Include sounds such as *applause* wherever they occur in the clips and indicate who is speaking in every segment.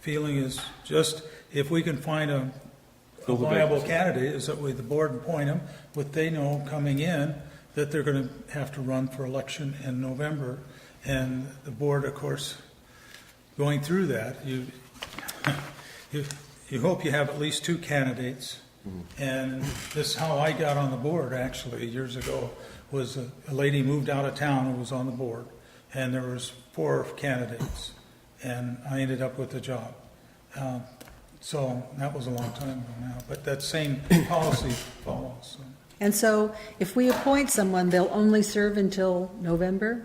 Speaker 1: feeling is just, if we can find a a
Speaker 2: Fill the
Speaker 1: viable
Speaker 2: vacancy.
Speaker 1: candidate, is that way the board appoint them, but they know coming in that they're gonna have to run for election in November. And the board, of course, going through that, you, you, you hope you have at least two candidates. And this is how I got on the board, actually, years ago, was a a lady moved out of town who was on the board, and there was four candidates, and I ended up with the job. Uh, So that was a long time ago now, but that same policy follows. so.
Speaker 3: And so if we appoint someone, they'll only serve until November?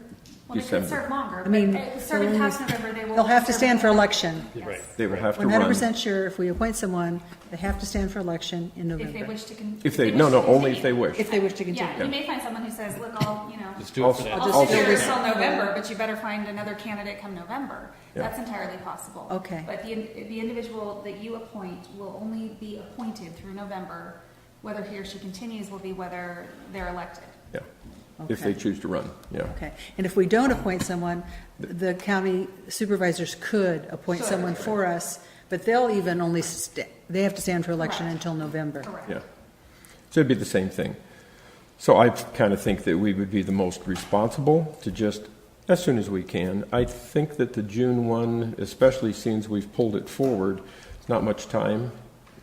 Speaker 4: Well, they could
Speaker 2: December.
Speaker 4: serve longer,
Speaker 3: I
Speaker 4: but
Speaker 3: mean,
Speaker 4: if serving
Speaker 3: they'll
Speaker 4: past
Speaker 3: only-
Speaker 4: November, they will.
Speaker 3: they'll have to
Speaker 4: serve
Speaker 3: stand for
Speaker 4: longer.
Speaker 3: election.
Speaker 4: Yes.
Speaker 2: They would have to
Speaker 3: One
Speaker 2: run.
Speaker 3: hundred percent sure, if we appoint someone, they have to stand for election in
Speaker 4: If they
Speaker 3: November.
Speaker 4: wish to. con-
Speaker 2: If they,
Speaker 4: wish
Speaker 2: no,
Speaker 4: to
Speaker 2: no, only if they
Speaker 4: continue.
Speaker 2: wish.
Speaker 3: If they wish to
Speaker 4: Yeah,
Speaker 3: continue.
Speaker 4: you may find someone who says, look, I'll, you know,
Speaker 5: Let's do it for that.
Speaker 4: I'll
Speaker 3: I'll
Speaker 4: sit here
Speaker 3: figure it
Speaker 4: until
Speaker 3: out.
Speaker 4: November, but you better find another candidate come November.
Speaker 2: Yeah.
Speaker 4: That's entirely possible.
Speaker 3: Okay.
Speaker 4: But the, the individual that you appoint will only be appointed through November. Whether he or she continues will be whether they're elected.
Speaker 2: Yeah, if they
Speaker 3: Okay.
Speaker 2: choose to run, yeah.
Speaker 3: Okay, and if we don't appoint someone, the county supervisors could appoint
Speaker 4: Sure.
Speaker 3: someone for us, but they'll even only, sta- they have to stand for election
Speaker 4: Correct.
Speaker 3: until November.
Speaker 4: Correct.
Speaker 2: Yeah. So it'd be the same thing. So I kind of think that we would be the most responsible to just, as soon as we can. I think that the June one, especially since we've pulled it forward, not much time.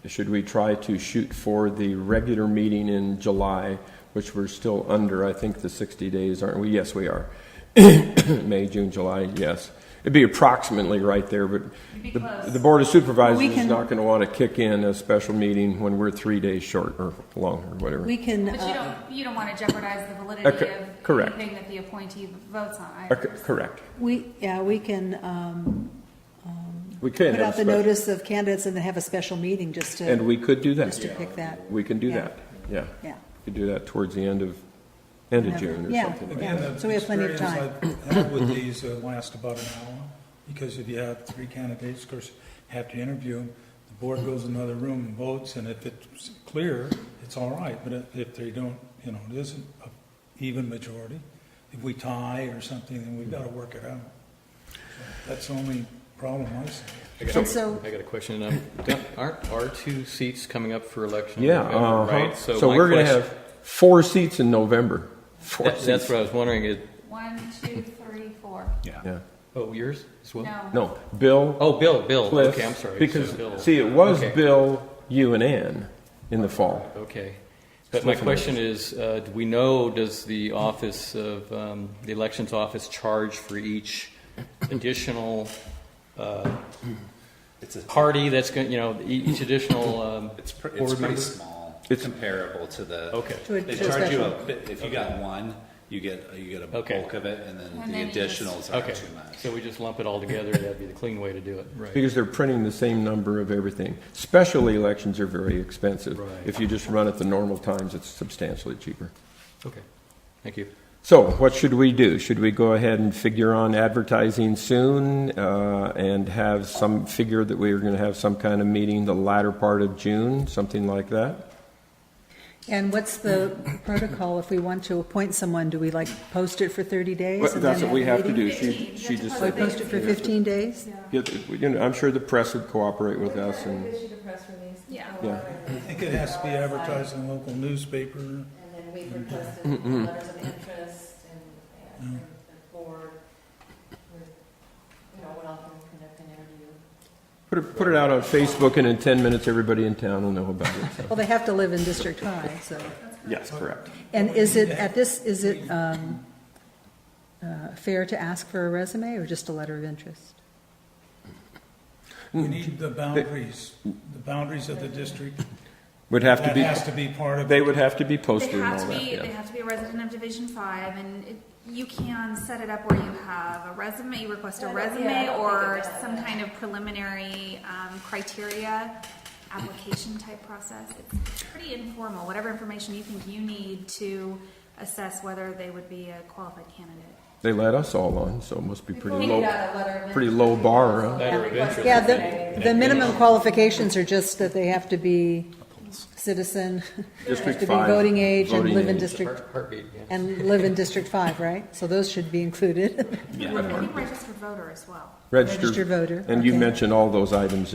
Speaker 2: Should we try to shoot for the regular meeting in July, which we're still under, I think, the sixty days, aren't we? Yes, we are. *coughs* May, June, July, yes. It'd be approximately right there, but
Speaker 4: be
Speaker 2: the,
Speaker 4: close.
Speaker 2: the Board of Supervisors
Speaker 3: We
Speaker 2: is
Speaker 3: can-
Speaker 2: not going to want to kick in a special meeting when we're three days short or long or whatever.
Speaker 3: We can,
Speaker 4: But you
Speaker 3: uh,
Speaker 4: don't, you don't want to jeopardize the validity of
Speaker 2: Okay, correct.
Speaker 4: anything that the appointee votes on
Speaker 2: Uh,
Speaker 4: either.
Speaker 2: c- Correct.
Speaker 3: we, yeah, we can um,
Speaker 2: We can have
Speaker 3: put
Speaker 2: a
Speaker 3: out the
Speaker 2: special-
Speaker 3: notice of candidates and then have a special meeting just
Speaker 2: And
Speaker 3: to,
Speaker 2: we could do
Speaker 3: just to
Speaker 2: that.
Speaker 3: pick that.
Speaker 2: We can do
Speaker 3: Yeah.
Speaker 2: that, yeah.
Speaker 3: Yeah.
Speaker 2: We could do that towards the end of, end of
Speaker 3: Yeah.
Speaker 2: June or
Speaker 3: Yeah.
Speaker 2: something like that.
Speaker 1: Again, the
Speaker 3: So we have plenty of
Speaker 1: experience I've had with these uh, last about an hour, because if you have three candidates, of course, you have to interview them. The board goes in another room and votes, and if it's clear, it's all right, but if- if they don't, you know, it isn't an even majority, if we tie or something, then we've got to work it out. That's the only problem I see.
Speaker 5: I got,
Speaker 3: And so-
Speaker 5: I got a question. Um, don't- aren't our two seats coming up for election? in
Speaker 2: Yeah,
Speaker 5: November,
Speaker 2: uh-huh.
Speaker 5: right.
Speaker 2: So
Speaker 5: my
Speaker 2: we're going to
Speaker 5: question-
Speaker 2: have four seats in November. Four
Speaker 5: that- that's
Speaker 2: seats.
Speaker 5: what I was wondering. Is
Speaker 4: One, two, three, four.
Speaker 2: Yeah.
Speaker 5: oh yours as well?
Speaker 4: No.
Speaker 2: No, Bill,
Speaker 5: Oh, Bill, Bill.
Speaker 2: Cliff.
Speaker 5: okay, I'm sorry.
Speaker 2: Because,
Speaker 5: So Bill.
Speaker 2: see, it was
Speaker 5: Okay.
Speaker 2: Bill, you and Ann in the fall.
Speaker 5: Okay. But my
Speaker 2: Cliff and
Speaker 5: question is, uh, do we know, does the office of, um, the elections office charge for each additional, uh,
Speaker 6: It's a,
Speaker 5: party that's going, you know, e- each additional, um,
Speaker 6: it's, pr- it's
Speaker 5: board
Speaker 6: pretty
Speaker 5: member?
Speaker 6: small,
Speaker 2: It's-
Speaker 6: comparable to the.
Speaker 5: Okay.
Speaker 3: To a-
Speaker 6: They
Speaker 3: to a
Speaker 6: charge you
Speaker 3: special.
Speaker 6: a bit, if you got one, you get, you get a
Speaker 5: Okay.
Speaker 6: bulk of it, and then
Speaker 4: And then
Speaker 6: the
Speaker 4: you just-
Speaker 6: additionals are
Speaker 5: Okay.
Speaker 6: too much.
Speaker 5: So we just lump it all together. That'd be the clean way to do it. Right.
Speaker 2: Because they're printing the same number of everything. Special elections are very expensive.
Speaker 5: Right.
Speaker 2: If you just run at the normal times, it's substantially cheaper.
Speaker 5: Okay. Thank you.
Speaker 2: So what should we do? Should we go ahead and figure on advertising soon uh, and have some figure that we are going to have some kind of meeting the latter part of June, something like that?
Speaker 3: And what's the protocol if we want to appoint someone? Do we like post it for 30 days? and then a meeting?
Speaker 2: do.
Speaker 4: She- Fifteen. You she have to
Speaker 3: We
Speaker 4: just said-
Speaker 3: post it for 15 days?
Speaker 2: I'm sure the press would cooperate with us and,
Speaker 7: Issued a press release.
Speaker 4: Yeah.
Speaker 2: yeah.
Speaker 1: I think it has to be advertised in the local newspaper.
Speaker 7: And then we requested
Speaker 2: Mm-hmm.
Speaker 7: letters of interest and, and the board, with, you know, went off and conducted an interview.
Speaker 2: Put it, put it out on Facebook and in 10 minutes, everybody in town will know about it. so.
Speaker 3: Well, they have to live in District 5, so.
Speaker 2: Yes, correct.
Speaker 3: And is it, at this, is it um, uh, fair to ask for a resume or just a letter of interest?
Speaker 1: We need the boundaries, the boundaries of the district.
Speaker 2: Would have to
Speaker 1: That
Speaker 2: be,
Speaker 1: has to be part of.
Speaker 2: they would have to be
Speaker 4: They
Speaker 2: posted and
Speaker 4: have
Speaker 2: all
Speaker 4: to
Speaker 2: that,
Speaker 4: be, they
Speaker 2: yeah.
Speaker 4: have to be a resident of Division Five, and it- you can set it up where you have a resume, you request a
Speaker 7: Yeah, I don't- yeah, I
Speaker 4: resume
Speaker 7: don't
Speaker 4: or
Speaker 7: think it does.
Speaker 4: some kind of preliminary um, criteria, application type process. It's pretty informal, whatever information you think you need to assess whether they would be a qualified candidate.
Speaker 2: They let us all on, so it must be pretty
Speaker 7: We
Speaker 2: low.
Speaker 7: got a letter of
Speaker 2: pretty
Speaker 7: interest.
Speaker 2: low bar, uh, huh?
Speaker 7: Yeah,
Speaker 5: Letter of
Speaker 7: requested
Speaker 5: interest.
Speaker 3: Yeah,
Speaker 7: resume.
Speaker 3: the, the minimum qualifications are just that they have to be citizen, *laughs*
Speaker 2: District
Speaker 3: to be
Speaker 2: five,
Speaker 3: voting age and
Speaker 2: voting
Speaker 3: live in
Speaker 2: age.
Speaker 3: district,
Speaker 5: Heart- Heartbeat, yeah.
Speaker 3: and live in District Five, right? So those should be included, *laughs*
Speaker 6: Yeah.
Speaker 4: I think registered voter as well.
Speaker 2: Registered-
Speaker 3: Registered voter,
Speaker 2: And you
Speaker 3: okay.
Speaker 2: mentioned all those items in